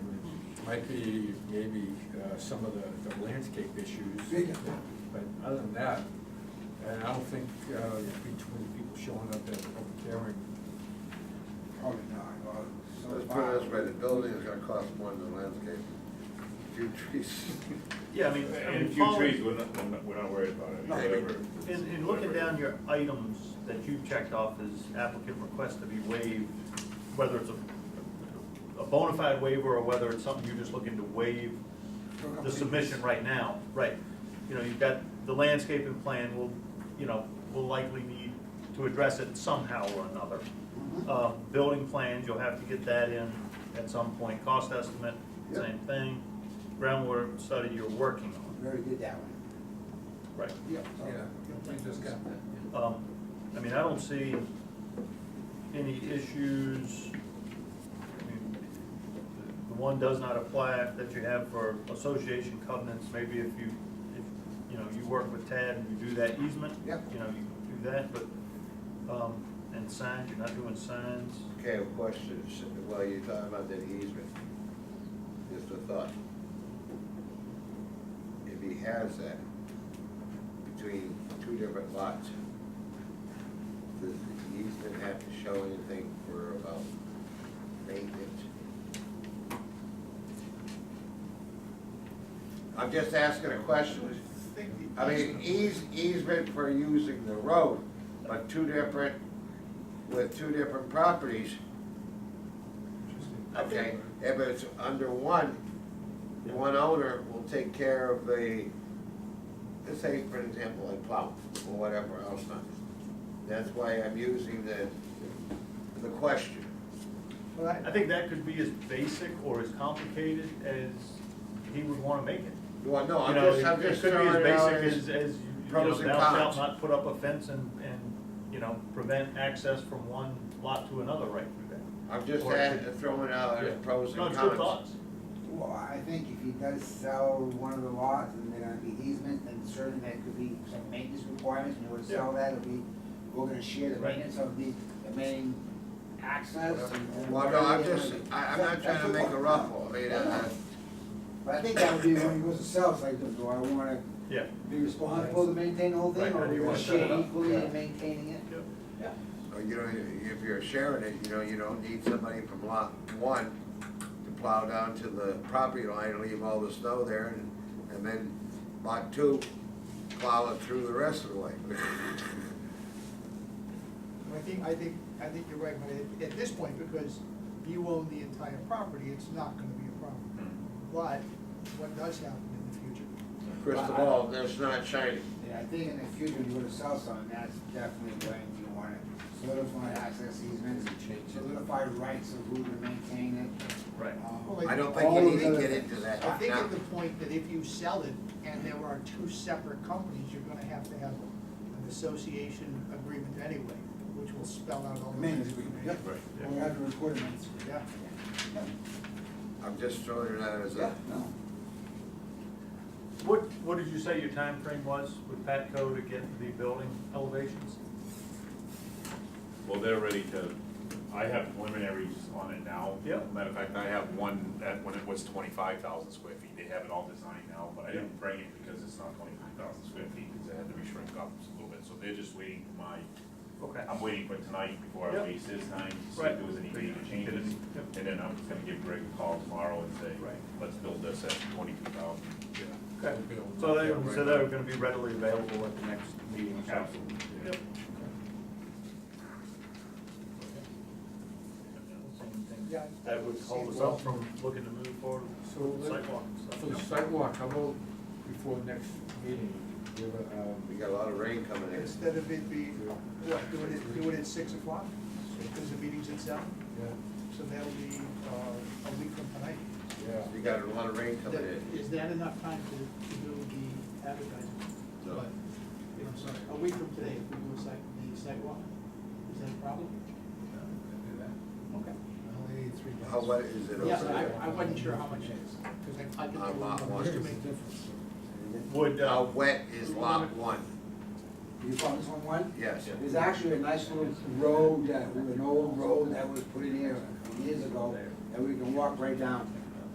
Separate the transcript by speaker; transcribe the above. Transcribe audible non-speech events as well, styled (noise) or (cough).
Speaker 1: might be maybe uh, some of the the landscape issues.
Speaker 2: Yeah.
Speaker 1: But other than that, and I don't think uh, between people showing up at the public hearing,
Speaker 2: Probably not, well, so
Speaker 3: Let's put
Speaker 2: far.
Speaker 3: it this way, the building is gonna cost more than landscaping. Few trees. (laughs)
Speaker 4: Yeah, I mean, I mean,
Speaker 5: And a few trees,
Speaker 4: following,
Speaker 5: we're not, we're not- we're not worried about it,
Speaker 2: No.
Speaker 5: whatever.
Speaker 4: in, in looking
Speaker 5: whatever.
Speaker 4: down your items that you checked off as applicant request to be waived, whether it's a, a bona fide waiver or whether it's something you're just looking to waive the submission right now, right. You know, you've got the landscaping plan will, you know, will likely need to address it somehow or another.
Speaker 2: Mm-hmm.
Speaker 4: Uh, building plans, you'll have to get that in at some point, cost estimate, same thing. Groundwater study you're working on,
Speaker 2: Very good, that one.
Speaker 4: right.
Speaker 2: Yep. so-
Speaker 3: we just got that.
Speaker 4: Um, I mean, I don't see any issues. I mean, the- The one does not apply that you have for association covenants, maybe if you, if, you know, you work with Tad and you do that easement.
Speaker 2: Yep.
Speaker 4: You know, you do that, but, um, and signs, you're not doing signs.
Speaker 3: Okay, a question, well, you're talking about that easement, just a thought. If he has that between two different lots, does the easement have to show anything for about maintenance? I'm just asking a question, I mean, eas- easement for using the road, but two different, with two different properties, Okay, if it's under one, one owner will take care of the, let's say, for example, like plow or whatever else not. That's why I'm using the, the question.
Speaker 2: Well,
Speaker 4: I
Speaker 2: I-
Speaker 4: think that could be as basic or as complicated as he would wanna make it.
Speaker 3: Well, no,
Speaker 4: You
Speaker 3: I'm
Speaker 4: know,
Speaker 3: just, I'm
Speaker 4: it- it
Speaker 3: just
Speaker 4: could be
Speaker 3: throwing
Speaker 4: as
Speaker 3: it out
Speaker 4: basic
Speaker 3: as,
Speaker 4: As, as, you know,
Speaker 3: pros and
Speaker 4: thou shalt
Speaker 3: cons.
Speaker 4: not put up a fence and, and, you know, prevent access from one lot to another right through that.
Speaker 3: I'm just
Speaker 4: or-
Speaker 3: add- throwing out
Speaker 4: Yeah.
Speaker 3: as Uh, pros
Speaker 4: No,
Speaker 3: and
Speaker 4: it's good
Speaker 3: cons.
Speaker 4: thoughts.
Speaker 2: Well, I think if he does sell one of the lots and they're gonna be easement, then certainly that could be some maintenance requirements, and he would sell that, it'll be, we're gonna share the
Speaker 4: Right.
Speaker 2: maintenance of the, the main access and. and
Speaker 3: Well, no, I'm
Speaker 2: whatever it
Speaker 3: just,
Speaker 2: is.
Speaker 3: I, I'm not trying to make a ruffle, I mean, uh,
Speaker 2: But I think that would be when he goes to sell, it's like, do I wanna
Speaker 4: Yeah.
Speaker 2: be responsible to maintain the whole thing,
Speaker 4: Right,
Speaker 2: or
Speaker 4: how do
Speaker 2: we
Speaker 4: you
Speaker 2: gonna
Speaker 4: wanna set it
Speaker 2: share
Speaker 4: up?
Speaker 2: equally
Speaker 3: Yeah.
Speaker 2: in maintaining it? Yeah.
Speaker 3: or uh, you know, if you're sharing it, you know, you don't need somebody from lot one to plow down to the property line and leave all the snow there, and, and then lot two plow it through the rest of the way. (laughs)
Speaker 6: I think, I think, I think you're right, but at, at this point, because you own the entire property, it's not gonna be a problem. But what does happen in the future?
Speaker 3: First of all, that's not shiny.
Speaker 2: Yeah, I think in the future, when you go to sell something, that's definitely when you want to solidify access easements, solidify rights of who to maintain
Speaker 4: Right.
Speaker 2: it. um,
Speaker 6: Well,
Speaker 3: I don't think
Speaker 2: all
Speaker 3: we
Speaker 2: of
Speaker 3: need to
Speaker 2: those-
Speaker 3: get into that
Speaker 6: I think
Speaker 3: now.
Speaker 6: at the point that if you sell it and there are two separate companies, you're gonna have to have an association agreement anyway, which will spell out all the.
Speaker 2: Maintenance agreement, yep.
Speaker 4: Right, yeah.
Speaker 2: We have to record a maintenance agreement.
Speaker 6: Yeah.
Speaker 3: I'm just throwing it out as
Speaker 2: Yeah,
Speaker 3: a,
Speaker 2: no.
Speaker 4: What, what did you say your time frame was with Patco to get the building elevations?
Speaker 5: Well, they're ready to, I have preliminaries on it now.
Speaker 4: Yeah.
Speaker 5: Matter of fact, I have one, that, when it was twenty-five thousand square feet, they have it all designed now, but I didn't bring it because it's not twenty-five thousand square feet, because it had to be shrink up a little bit, so they're just waiting for my,
Speaker 4: Okay.
Speaker 5: I'm waiting for tonight before
Speaker 4: Yeah.
Speaker 5: I waste this time, to see
Speaker 4: Right.
Speaker 5: if there was any major changes.
Speaker 4: Yeah.
Speaker 5: And then I'm just gonna give Greg a call tomorrow and say,
Speaker 4: Right.
Speaker 5: let's build this at twenty-two thousand.
Speaker 4: Okay.
Speaker 1: we'll be able to-
Speaker 4: So they, so they're gonna be readily available at the next meeting or something?
Speaker 5: Absolutely.
Speaker 4: Yep.
Speaker 6: Yeah.
Speaker 4: That would hold us up from looking to move forward with the sidewalk and stuff.
Speaker 1: For the sidewalk, how about before next meeting, give a,
Speaker 3: we
Speaker 1: um,
Speaker 3: got a lot of rain coming in.
Speaker 6: Instead of it being, what, do it, at- do it at six o'clock, because the meeting's at seven,
Speaker 1: yeah,
Speaker 6: so that'll be, uh, a week from tonight.
Speaker 1: yeah.
Speaker 3: We got a lot of rain coming
Speaker 6: That-
Speaker 3: in.
Speaker 6: Is that enough time to, to do the advertising?
Speaker 3: No.
Speaker 6: But, you know, sorry, a week from today, if we do a site, the site walk, is that a problem? Okay.
Speaker 3: How wet is it over
Speaker 6: Yes, I,
Speaker 3: there?
Speaker 6: I wasn't sure how much it is, because I, I
Speaker 3: On lot
Speaker 6: could.
Speaker 3: one.
Speaker 6: just to make-
Speaker 4: Would, uh,
Speaker 3: How wet is lot one?
Speaker 2: You found this one, one?
Speaker 3: Yes.
Speaker 2: There's actually a nice little road, uh, with an old road that was put in here years ago, that we can walk right down.